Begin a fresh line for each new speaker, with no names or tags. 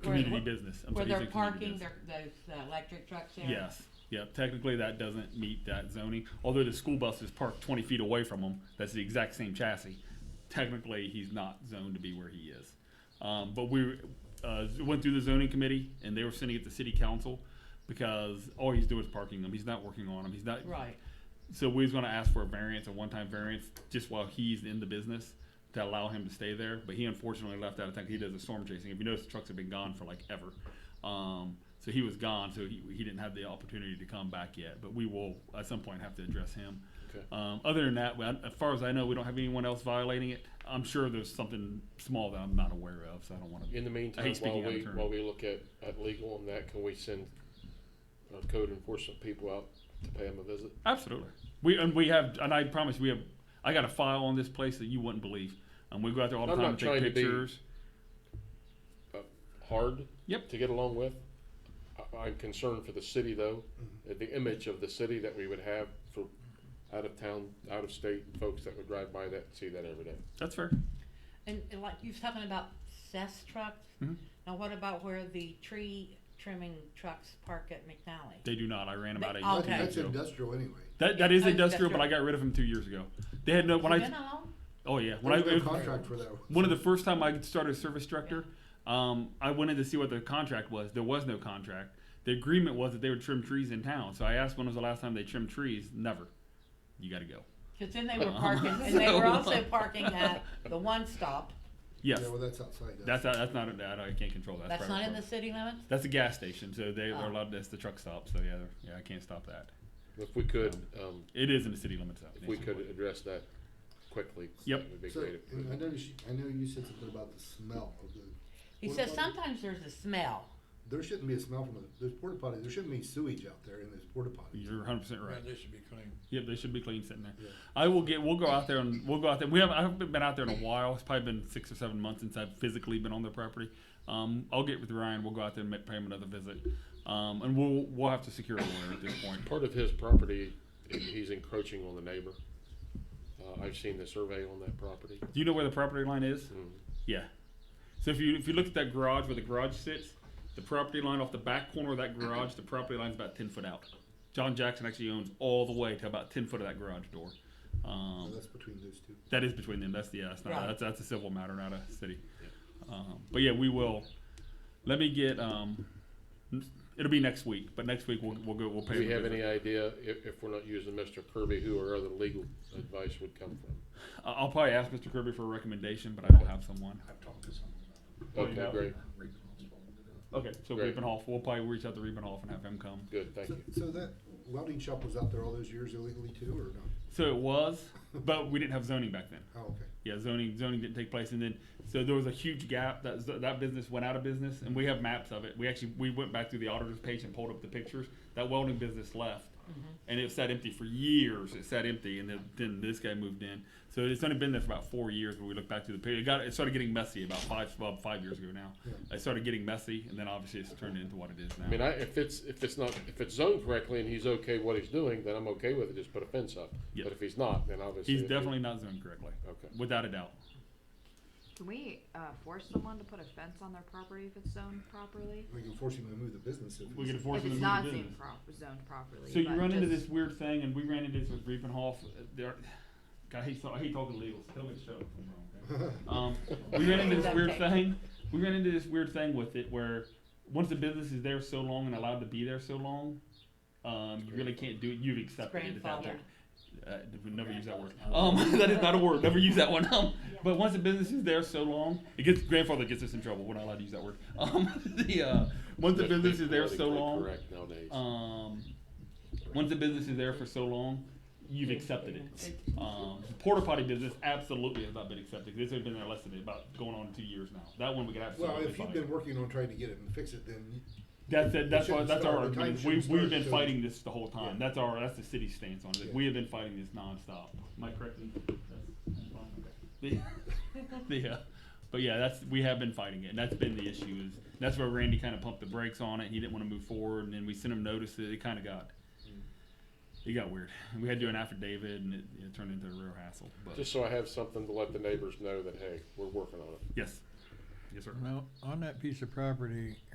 community business. I'm
Where
sorry,
they're
you said community
parking
business.
their, those uh, electric trucks there?
Yes, yeah, technically that doesn't meet that zoning, although the school bus is parked twenty feet away from him, that's the exact same chassis. Technically, he's not zoned to be where he is. Um, but we, uh, went through the zoning committee and they were sending it to city council because all he's doing is parking them, he's not working on them, he's not.
Right,
So we was gonna ask for a variance, a one-time variance, just while he's in the business to allow him to stay there, but he unfortunately left out of town, 'cause he does the storm chasing, if you notice, the trucks have been gone for like ever. Um, so he was gone, so he, he didn't have the opportunity to come back yet, but we will at some point have to address him.
Okay.
Um, other than that, well, as far as I know, we don't have anyone else violating it, I'm sure there's something small that I'm not aware of, so I don't wanna.
In the
I
meantime,
hate speaking
while
out of
we,
turn.
while we look at, at legal on that, can we send uh, code enforcement people out to pay them a visit?
Absolutely. We and we have, and I promise we have. I got a file on this place that you wouldn't believe, and we go out there all the
I'm
time
not
and
trying
take
to be-
pictures.
Hard
Yep.
to get along with. I, I'm concerned for the city though,
Mm-hmm.
uh, the image of the city that we would have for out of town, out of state folks that would drive by that, and see that every day.
That's fair.
and, and like, you was talking about cess trucks?
Mhm.
Now what about where the tree trimming trucks park at McNally?
They do not. I ran about
They-
eight years
okay.
That's
ago.
industrial anyway.
That that is
Oh,
industrial, but
industrial.
I got rid of them two years ago. They had no when
Has it
I
been that long?
oh yeah when I
There's no
it was
contract for that.
one of the first time I started as service director, um, I went in to see what the contract was. There was no contract. The agreement was that they would trim trees in town. So I asked when was the last time they trimmed trees. Never. You got to go.
Cause then they were
Uh-huh.
parking, and they were
So-
also parking at the one stop,
Yes,
Yeah, well, that's outside. us.
that's uh, that's not that I can't control that.
that's
private
not in
property.
the city limits?
That's a gas station, so they, they're
Oh.
allowed. That's the truck stop. So yeah, they're- yeah, I can't stop that.
If we could, um,
It is in the city limits. though,
if we could
nationwide.
address that quickly,
Yep.
that would be
So,
great.
and I know you, I know you said something about the smell of the.
He
porta
says
potty.
sometimes there's a smell.
There shouldn't be a smell from the, those porta potties, there shouldn't be sewage out there in those porta potties.
You're 100 percent right.
Yeah, they should be clean.
Yep, they should be clean sitting there.
Yeah.
I will get. We'll go out there and we'll go out there. We haven't. I haven't been out there in a while. It's probably been six or seven months since I've physically been on their property. Um, I'll get with Ryan. We'll go out there and make, pay him another visit. Um, and we'll we'll have to secure a lawyer at this point.
Part of his property, he's encroaching on the neighbor. Uh, I've seen the survey on that property.
Do you know where the property line is?
Mm.
Yeah. So if you if you look at that garage where the garage sits, the property line off the back corner of that garage, the property line's about ten foot out. John Jackson actually owns all the way to about ten foot of that garage door.
So
Um,
That's between those two.
that is between them. That's the yeah, that's not
Right.
that's that's a civil matter, not a city. Um, but yeah, we will. Let me get. Um, it'll be next week, but next week we'll we'll go we'll pay.
Do we
them a
have
visit.
any idea if, if we're not using Mr. Kirby, who our other legal advice would come from?
I- I'll probably ask Mr. Kirby for a recommendation, but I don't have someone.
I've talked to someone about it.
Well, you
Okay,
know-
great,
Okay, so
Great.
Riepenhoff. We'll probably reach out to Riepenhoff and have him come.
good, thank
So,
you.
so that welding shop was out there all those years illegally too, or no?
So it was, but we didn't have zoning back then.
Oh, okay.
Yeah, zoning zoning didn't take place, and then so there was a huge gap. That that business went out of business, and we have maps of it. We actually we went back through the auditor's page and pulled up the pictures. That welding business left, and it sat empty for years. It sat empty, and then, then this guy moved in. So it's only been there for about four years. When we look back through the picture, it got it started getting messy about five about five years ago now.
Yeah.
It started getting messy, and then obviously it's turned into what it is now.
I mean, I, if it's, if it's not, if it's zoned correctly and he's okay what he's doing, then I'm okay with it, just put a fence up.
Yeah.
But if he's not, then obviously.
He's
if he-
definitely not zoned correctly,
Okay,
without a doubt.
Can we uh, force someone to put a fence on their property if it's zoned properly?
We can force him to move the business if.
We can
it's-
afford
If
them to move
it's not
the
zoned,
business.
pro- zoned properly.
So you
but
run into
just-
this weird thing, and we ran into this with Reepenhoff. uh, There, God, I hate, so- I hate talking legals. Tell me to shut up if I'm wrong. okay? Um, we ran into this weird thing. We ran into this weird thing with it where once the business is there so long and allowed to be there so long, um, you really can't do it. You've accepted it at that
Grandfathered.
point. Uh, we never use that word. Um, that is not a word. Never use that one. Um, but once the business is there so long, it gets grandfather gets us in trouble. We're not allowed to use that word. Um, the uh, once the
Let's be
business is there so
politically
long,
Correct nowadays.
um, once the business is there for so long, you've accepted it. Um, the porta potty business absolutely has not been accepted. This has been there less than about going on two years now. That one we could absolutely.
Well, if you've
fight.
been working on trying to get it and fix it, then you-
That's it. That's why.
shouldn't
That's our
start. The time
argument. is We,
shouldn't
we've
start
been
until-
fighting this the whole time.
Yeah.
That's our. That's the city's stance on it.
Yeah.
We have been fighting this nonstop. Am I correct? in- that's- that's fine, okay. The, the, uh, but yeah, that's we have been fighting it, and that's been the issue. Is that's where Randy kind of pumped the brakes on it. He didn't want to move forward, and then we sent him notices. It kind of got. It got weird. We had to do an affidavit, and it, it turned into a real hassle. But
Just so I have something to let the neighbors know that, hey, we're working on it.
yes, Yes, sir.
Now, on that piece of property,